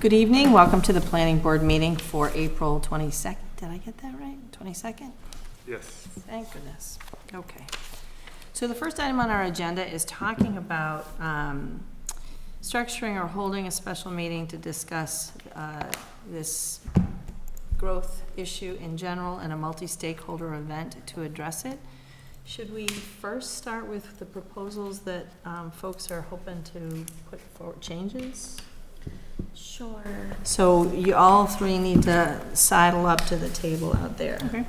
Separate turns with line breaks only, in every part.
Good evening, welcome to the planning board meeting for April 22nd. Did I get that right? 22nd?
Yes.
Thank goodness. Okay. So the first item on our agenda is talking about um, structuring or holding a special meeting to discuss uh, this growth issue in general and a multi-stakeholder event to address it. Should we first start with the proposals that um, folks are hoping to put forward, changes?
Sure.
So you all three need to sidle up to the table out there.
Okay.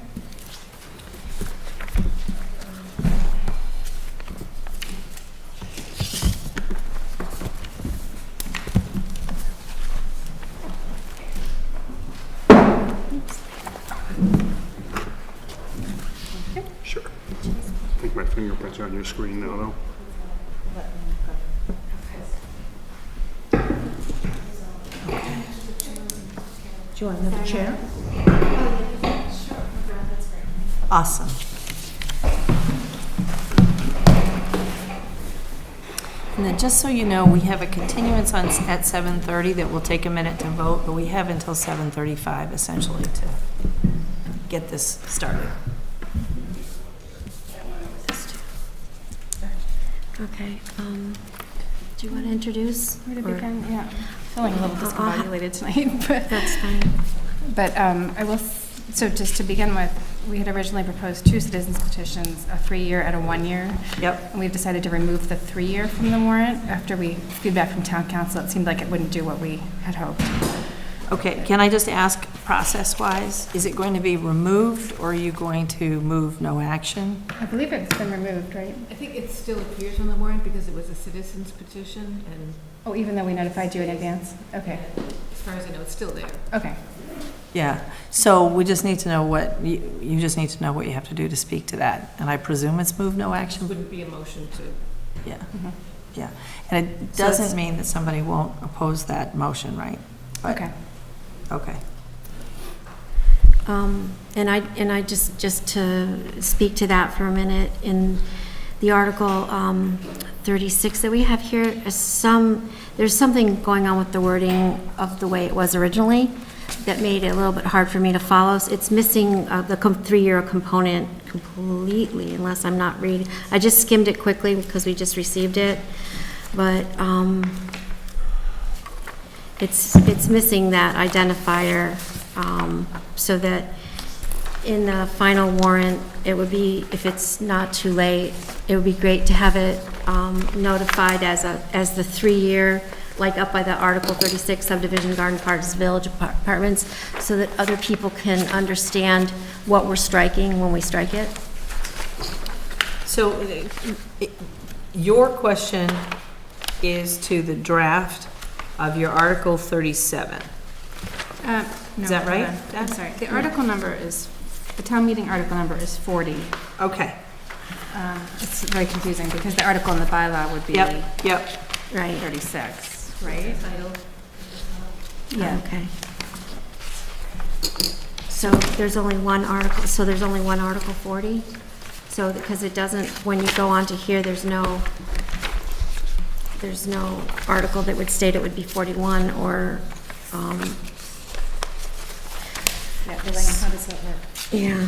Sure. I think my fingerprints are on your screen now, though.
Do you want another chair?
Awesome. And then, just so you know, we have a continuance on, at 7:30 that will take a minute to vote, but we have until 7:35 essentially to get this started.
Okay, um, do you want to introduce?
Where to
or-
begin? Yeah, feeling a little
I'll- I'll ha-
discombobulated tonight, but,
That's fine.
but um, I will, s- so just to begin with, we had originally proposed two citizens petitions, a three-year and a one-year.
Yep.
And we've decided to remove the three-year from the warrant after we, feedback from town council, it seemed like it wouldn't do what we had hoped.
Okay, can I just ask, process-wise, is it going to be removed or are you going to move no action?
I believe it's been removed, right?
I think it still appears on the warrant because it was a citizen's petition, and
Oh, even though we notified you in advance? Okay,
as far as I know, it's still there.
okay.
Yeah, so we just need to know what, you you just need to know what you have to do to speak to that. And I presume it's move no action, but
Wouldn't be a motion to,
Yeah,
Mhm.
yeah. And it
So it's-
doesn't mean that somebody won't oppose that motion, right? But-
Okay.
Okay.
Um, And I, and I just, just to speak to that for a minute, in the Article um, 36 that we have here, is some, there's something going on with the wording of the way it was originally that made it a little bit hard for me to follow. It's missing uh, the com- three-year component completely, unless I'm not reading. I just skimmed it quickly because we just received it, but um, it's, it's missing that identifier, um, so that in the final warrant, it would be, if it's not too late, it would be great to have it um, notified as a, as the three-year, like up by the Article 36 subdivision Garden Parks Village Apar- Apartments, so that other people can understand what we're striking when we strike it.
So uh, it- your question is to the draft of your Article 37.
Um, no,
Is that
hold
right?
on. I'm
That's-
sorry, the article number is, the town meeting article number is 40.
Okay,
Um, It's very confusing because the article in the bylaw would be
yep, yep.
Right.
36, right?
title,
Yeah, okay. So there's only one article, so there's only one Article 40? So, because it doesn't, when you go on to here, there's no, there's no article that would state it would be 41 or, um,
Yeah, Elaine, how does that work?
yeah,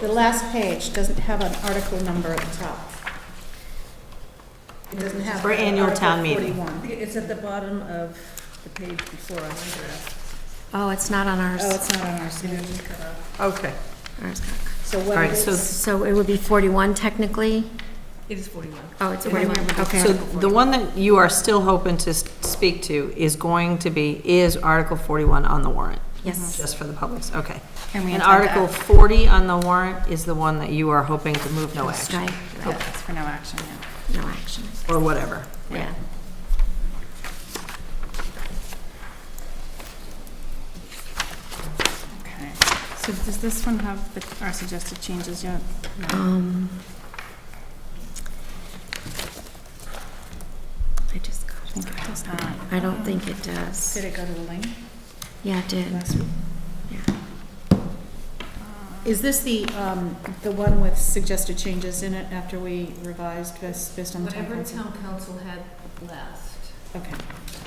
The last page doesn't have an article number at the top. It doesn't have.
For annual town
Article
meeting.
41.
It's at the bottom of the page before on the draft.
oh, it's not on
Oh,
ours.
it's not on our schedule.
Okay,
Ours.
So
all
what
right,
is,
so,
So it would be 41 technically?
It is 41.
Oh, it's 41,
so
okay.
the one that you are still hoping to s- speak to is going to be, is Article 41 on the warrant? Uh-huh.
Yes,
Just for the public's, okay.
And we
And
intend to
Article 40 on the warrant is the one that you are hoping to move no action,
strike,
Oh,
Yeah, it's for no action, yeah.
Oh, no action,
or whatever.
yeah.
Okay. So does this one have the- our suggested changes yet? No.
Um, I just got
I
it.
think it does not.
I don't think it does.
did it go to the link?
Yeah, it did.
Is this the, um, the one with suggested changes in it after we revised this based on the town
Whatever
council?
town council had last.
Okay.